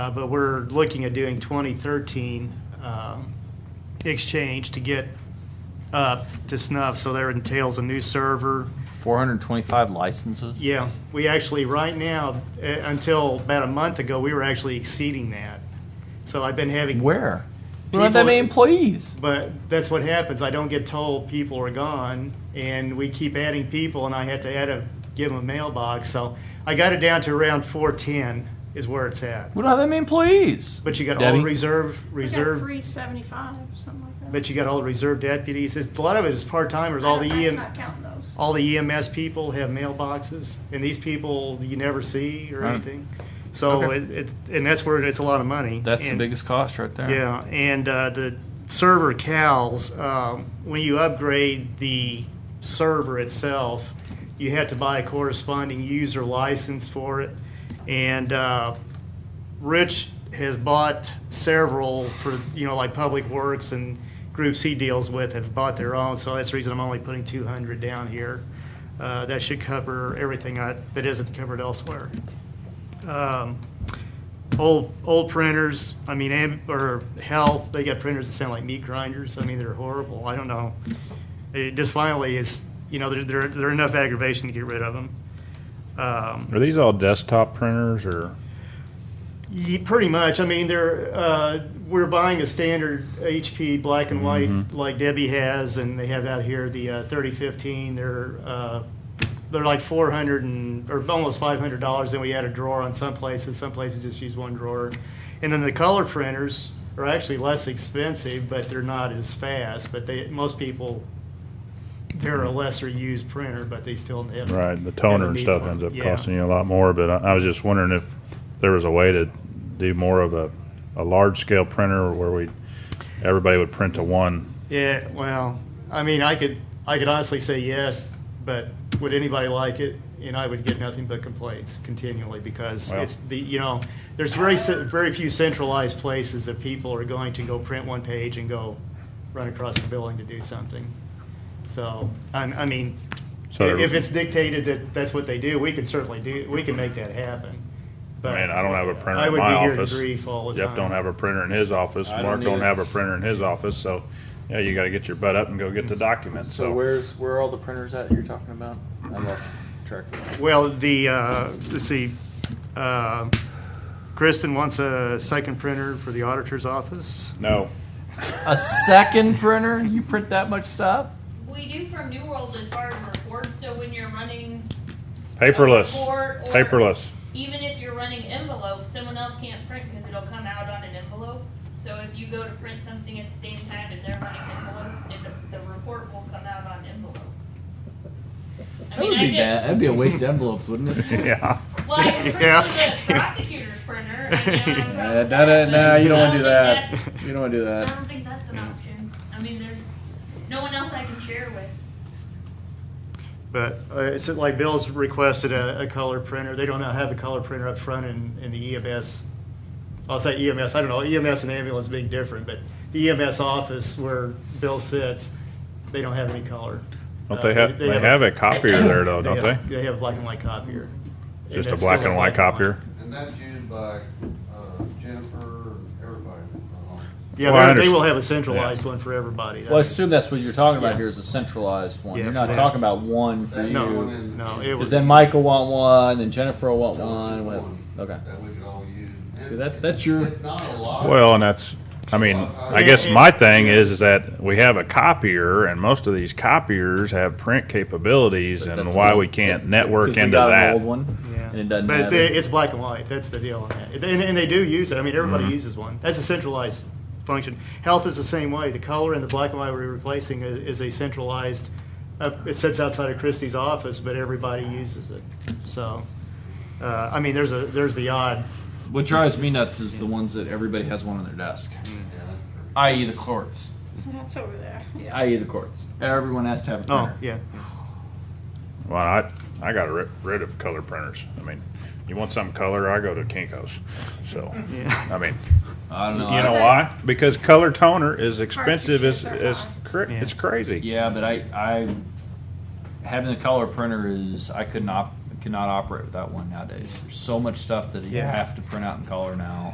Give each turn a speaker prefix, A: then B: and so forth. A: Uh, But we're looking at doing 2013 um, exchange to get up to snuff, so that entails a new server.
B: 425 licenses?
A: Yeah, we actually, right now, uh, until about a month ago, we were actually exceeding that. So I've been having.
B: Where? We don't have that
A: People-
B: many employees.
A: But that's what happens. I don't get told people are gone, and we keep adding people, and I had to add a, give them a mailbox. So I got it down to around 410 is where it's at.
B: We don't have that many employees.
A: But you got all
B: Debbie?
A: reserve, reserve.
C: Three seventy-five, something like that.
A: But you got all the reserve deputies. It's, a lot of it is part timers. All the
C: That's
A: EM,
C: not counting those.
A: all the EMS people have mailboxes, and these people you never see or
B: Right.
A: anything. So
B: Okay.
A: it, it, and that's where it's a lot of money.
B: That's the
A: And-
B: biggest cost right there.
A: Yeah, and uh, the server cows. Um, when you upgrade the server itself, you have to buy a corresponding user license for it, and uh, Rich has bought several for, you know, like Public Works and groups he deals with have bought their own, so that's the reason I'm only putting two hundred down here. Uh, that should cover everything I, that isn't covered elsewhere. Um, Old, old printers, I mean, am- or health, they got printers that sound like meat grinders, I mean, they're horrible, I don't know. It just finally is, you know, there, there, there are enough aggravation to get rid of them. Um,
D: Are these all desktop printers or?
A: Ye- Pretty much. I mean, they're, uh, we're buying a standard HP black and white like Debbie has, and they have out here the uh, 3015. They're uh, they're like 400 and or almost 500 dollars. Then we add a drawer on some places. Some places just use one drawer, and then the color printers are actually less expensive, but they're not as fast. But they most people they're a lesser used printer, but they still have
D: Right, the
A: have a
D: toner and
A: need
D: stuff
A: for 'em.
D: ends up
A: Yeah.
D: costing you a lot more, but I, I was just wondering if there was a way to do more of a, a large scale printer where we, everybody would print to one.
A: Yeah, well, I mean, I could, I could honestly say yes, but would anybody like it? And I would get nothing but complaints continually because
D: Well.
A: it's the, you know, there's very, ce- very few centralized places that people are going to go print one page and go run across the building to do something. So, I, I mean,
D: So there-
A: if it's dictated that that's what they do, we can certainly do, we can make that happen. But
D: I mean, I don't have a printer
A: I
D: in
A: would
D: my
A: be here in
D: office.
A: grief all the
D: Jeff
A: time.
D: don't have a printer in his office,
E: I don't
D: Mark don't
E: either.
D: have a printer in his office, so, yeah, you gotta get your butt up and go get the documents,
E: So
D: so.
E: where's where are all the printers at you're talking about? I lost track of that.
A: Well, the, uh, let's see, uh, Kristen wants a second printer for the auditor's office.
D: No,
B: A second printer? You print that much stuff?
F: We do from New World as part of reports, so when you're running,
D: paperless,
F: Or- or-
D: paperless.
F: even if you're running envelopes, someone else can't print because it'll come out on an envelope. So if you go to print something at the same time and they're running envelopes, it, the report will come out on envelopes. I
B: That
F: mean,
B: would
F: I
B: be
F: did-
B: bad. That'd be a waste of envelopes, wouldn't it?
D: Yeah,
F: Well, I can
A: Yeah.
F: print with a prosecutor's printer. I mean, I don't
B: Uh,
F: know.
B: nah, nah, nah, you don't want to do
F: I
B: that.
F: don't think
B: You don't want to do
F: that- I
B: that.
F: don't think that's an option. I mean, there's no one else I can share with.
A: But uh, it's like Bill's requested a, a color printer. They don't have a color printer up front in, in the EMS. I'll say EMS, I don't know, EMS and ambulance being different, but the EMS office where Bill sits, they don't have any color.
D: don't
A: Uh,
D: they have, they have a copier there though, don't they?
A: They have a black and white copier. And
D: Just a
A: that's
D: black
A: still
D: and white copier?
G: And that's used by uh, Jennifer and everybody. uh,
A: Yeah,
D: Well,
A: they're-
D: I
A: they
D: understand.
A: will have a centralized one for everybody.
B: Well, I assume that's what you're talking about
A: Yeah.
B: here is a centralized one.
A: Yeah,
B: you're not
A: yeah.
B: talking about one for
G: That
B: you.
G: one
B: Because
G: and-
A: No, it was.
B: then Mike will want one, then Jennifer will want one.
G: One
B: With, okay.
G: That we could all use.
B: See, that- that's your-
G: It's Not a lot.
D: Well, and that's, I mean, I guess my thing is, is that we have a copier and most of these copiers have print capabilities
B: But
D: and
B: that's
D: why
B: what-
D: we can't
B: Because
D: network
B: we
D: into
B: got an old
D: that.
B: one,
A: Yeah.
B: and it doesn't
A: But
B: have
A: they,
B: it.
A: it's black and white. That's the deal on that. And, and they do use it. I mean, everybody
B: Mm-hmm.
A: uses one. That's a centralized function. Health is the same way. The color and the black and white we're replacing is, is a centralized. Uh, it sits outside of Christie's office, but everybody uses it. So, uh, I mean, there's a there's the odd.
B: What drives me nuts is the ones that everybody has one on their desk, i.e., the courts.
C: That's over there.
B: i.e., the courts. Everyone has to have a
A: Oh
B: printer.
A: yeah.
D: Well, I, I got rid, rid of color printers. I mean, you want some color, I go to Kinko's. So,
A: Yeah.
D: I mean,
B: I don't know.
D: you
B: I-
D: know why? Because color toner is expensive as,
C: Cartridges are
D: as,
C: high.
D: cra- it's crazy.
B: Yeah, but I, I having the color printer is I could not cannot operate without one nowadays. There's so much stuff that you
A: Yeah.
B: have to print out in color now.